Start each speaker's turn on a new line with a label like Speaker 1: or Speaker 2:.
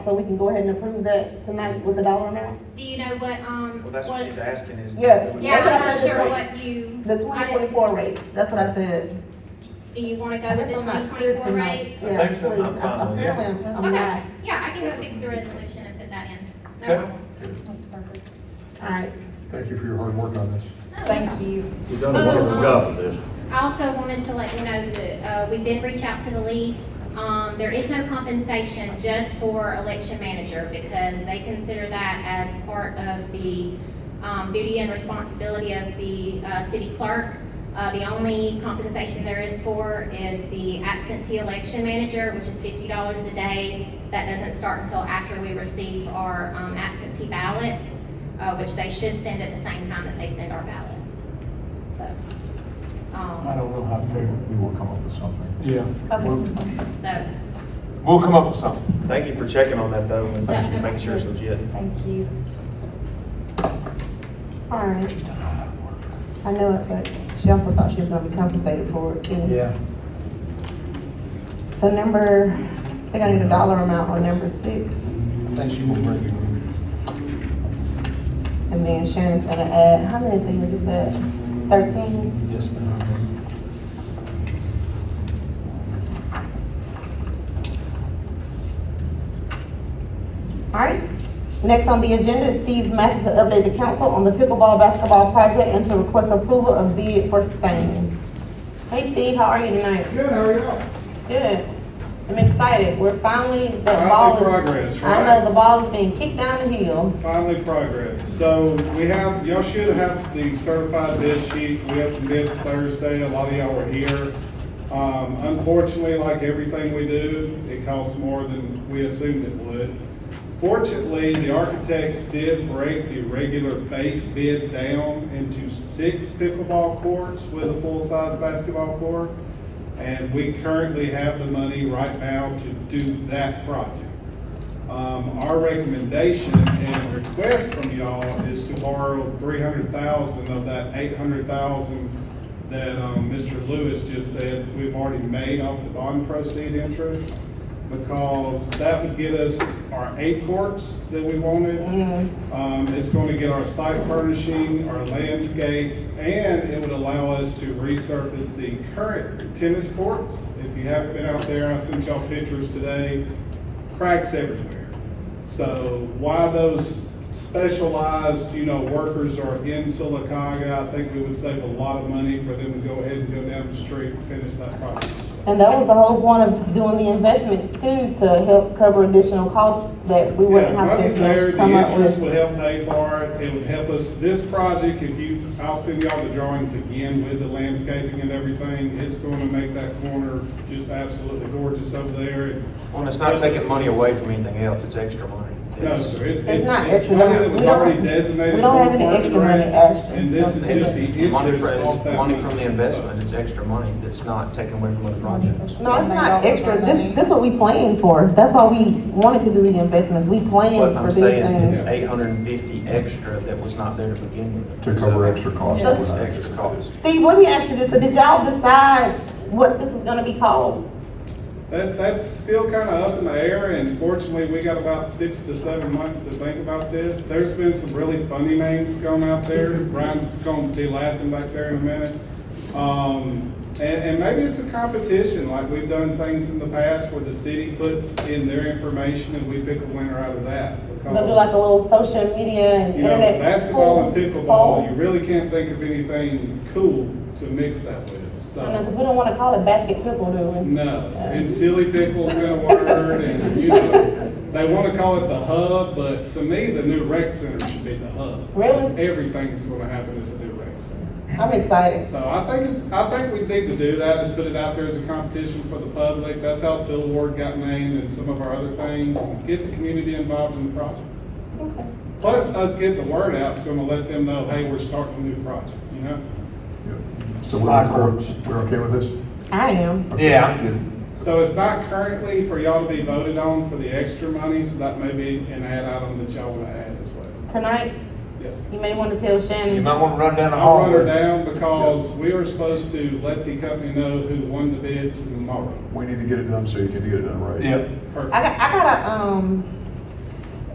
Speaker 1: So we can go ahead and approve that tonight with the dollar amount?
Speaker 2: Do you know what, um,
Speaker 3: Well, that's what she's
Speaker 2: what,
Speaker 3: asking is.
Speaker 1: Yeah.
Speaker 3: do we-
Speaker 2: yeah,
Speaker 1: That's what I
Speaker 2: I'm not
Speaker 1: said
Speaker 2: sure
Speaker 1: today.
Speaker 2: what you,
Speaker 1: The twenty twenty-four rate, that's what I said.
Speaker 2: do you wanna go with the
Speaker 1: I'm
Speaker 2: twenty
Speaker 1: not sure
Speaker 2: twenty-four
Speaker 1: tonight.
Speaker 2: rate?
Speaker 3: I
Speaker 1: Yeah,
Speaker 3: think so. I'm
Speaker 1: please.
Speaker 3: fine with it.
Speaker 1: Apparently, I'm- I'm
Speaker 2: Okay,
Speaker 1: not.
Speaker 2: yeah, I can go fix the resolution and put that in. Oh. No
Speaker 4: Okay.
Speaker 2: problem.
Speaker 1: All right,
Speaker 4: Thank you for your hard work on this.
Speaker 2: No,
Speaker 1: thank you.
Speaker 5: You've done a wonderful job with this.
Speaker 2: I also wanted to let you know that, uh, we did reach out to the league. Um, there is no compensation just for election manager because they consider that as part of the, um, duty and responsibility of the, uh, city clerk. Uh, the only compensation there is for is the absentee election manager, which is fifty dollars a day. That doesn't start until after we receive our, um, absentee ballots, uh, which they should send at the same time that they send our ballots. So, um.
Speaker 4: I don't know how to.
Speaker 5: We will come up with something.
Speaker 4: Yeah. We'll-
Speaker 1: Okay,
Speaker 2: So,
Speaker 4: We'll come up with something.
Speaker 3: Thank you for checking on that though, and
Speaker 2: Yeah.
Speaker 3: making sure it's legit.
Speaker 1: thank you. All right. I know it, but she also thought she was gonna be compensated for it. too. So number, I think I need a dollar amount on number six,
Speaker 4: I think she will bring it.
Speaker 1: and then Shannon's gonna add, how many things is that? Thirteen?
Speaker 4: Yes, ma'am.
Speaker 1: All right. Next on the agenda is Steve Matthews to update the council on the pickleball basketball project and to request approval of bid for same. Hey Steve, how are you tonight?
Speaker 6: Good, how are y'all?
Speaker 1: Good. I'm excited. We're finally, the
Speaker 6: Finally
Speaker 1: ball is.
Speaker 6: progress,
Speaker 1: I
Speaker 6: right?
Speaker 1: know, the ball is being kicked down the hill.
Speaker 6: Finally progress. So we have, y'all should have the certified bid sheet. We opened bids Thursday. A lot of y'all were here. Um, unfortunately, like everything we do, it costs more than we assumed it would. Fortunately, the architects did break the regular base bid down into six pickleball courts with a full-size basketball court. And we currently have the money right now to do that project. Um, our recommendation and request from y'all is to borrow three hundred thousand of that eight hundred thousand that, um, Mr. Lewis just said we've already made off the bond proceed interest, because that would get us our eight courts that we wanted.
Speaker 1: Mhm.
Speaker 6: Um, it's going to get our site furnishing, our landscapes, and it would allow us to resurface the current tennis courts. If you haven't been out there, I sent y'all pictures today, cracks everywhere. So why those specialized, you know, workers are in Silicaga, I think we would save a lot of money for them to go ahead and go down the street and finish that project as well.
Speaker 1: And that was the whole point of doing the investments too, to help cover additional costs that we
Speaker 6: Yeah,
Speaker 1: wouldn't have
Speaker 6: money's there,
Speaker 1: to
Speaker 6: the
Speaker 1: come up
Speaker 6: interest
Speaker 1: with.
Speaker 6: would help pay for it, it would help us, this project, if you, I'll send y'all the drawings again with the landscaping and everything, it's gonna make that corner just absolutely gorgeous over there.
Speaker 3: Well, and it's not taking money away from anything else, it's extra money.
Speaker 6: No, sir, it- it's,
Speaker 1: not
Speaker 6: it's
Speaker 1: extra
Speaker 6: money
Speaker 1: money.
Speaker 6: that was
Speaker 1: We don't-
Speaker 6: already designated.
Speaker 1: we don't
Speaker 6: for
Speaker 1: have any
Speaker 6: park and
Speaker 1: extra money,
Speaker 6: rec,
Speaker 1: actually.
Speaker 6: And this is
Speaker 1: Don't
Speaker 6: just the
Speaker 3: It's money
Speaker 6: interest
Speaker 3: for-
Speaker 6: off
Speaker 3: it's
Speaker 6: that.
Speaker 3: Money from the investment, it's extra money that's not taken away from other projects.
Speaker 1: No, it's not extra. This, this is what we planned for. That's why we wanted to do the investments. We planned
Speaker 3: But
Speaker 1: for
Speaker 3: I'm
Speaker 1: these
Speaker 3: saying
Speaker 1: things.
Speaker 3: it's eight hundred and fifty extra that was not there to begin with.
Speaker 5: To cover extra costs.
Speaker 3: It's extra cost.
Speaker 1: Steve, let me ask you this. So did y'all decide what this was gonna be called?
Speaker 6: That, that's still kind of up in the air, and fortunately, we got about six to seven months to think about this. There's been some really funny names going out there. Brian's going to be laughing back there in a minute. Um, and, and maybe it's a competition, like we've done things in the past where the city puts in their information and we pick a winner out of that.
Speaker 1: Maybe like a
Speaker 6: Because,
Speaker 1: little social media and
Speaker 6: you know,
Speaker 1: internet?
Speaker 6: basketball and
Speaker 1: poll?
Speaker 6: pickleball, you really can't think of anything cool to mix that with, so.
Speaker 1: I don't know, cause we don't wanna call it basket pickle, do we?
Speaker 6: No, and silly pickle's been a word, and you know, they wanna call it the hub, but to me, the new rec center should be the hub.
Speaker 1: Really?
Speaker 6: Everything's gonna happen at the new rec center.
Speaker 1: I'm excited.
Speaker 6: So I think it's, I think we need to do that, is put it out there as a competition for the public. That's how Civil Ward got named and some of our other things, and get the community involved in the project.
Speaker 1: Okay.
Speaker 6: Plus, us getting the word out is gonna let them know, hey, we're starting a new project, you know?
Speaker 5: So we're, we're okay with this?
Speaker 1: I am.
Speaker 4: Yeah, I'm good.
Speaker 6: So it's not currently for y'all to be voted on for the extra money, so that may be an add item that y'all wanna add as well.
Speaker 1: Tonight,
Speaker 6: Yes, ma'am.
Speaker 1: you may wanna tell Shannon.
Speaker 4: You might want to run down the
Speaker 6: I'll
Speaker 4: hall.
Speaker 6: run her down because we are supposed to let the company know who won the bid tomorrow.
Speaker 5: We need to get it done so you can get it done right.
Speaker 4: Yep.
Speaker 6: Perfect.
Speaker 1: I got, I got a, um,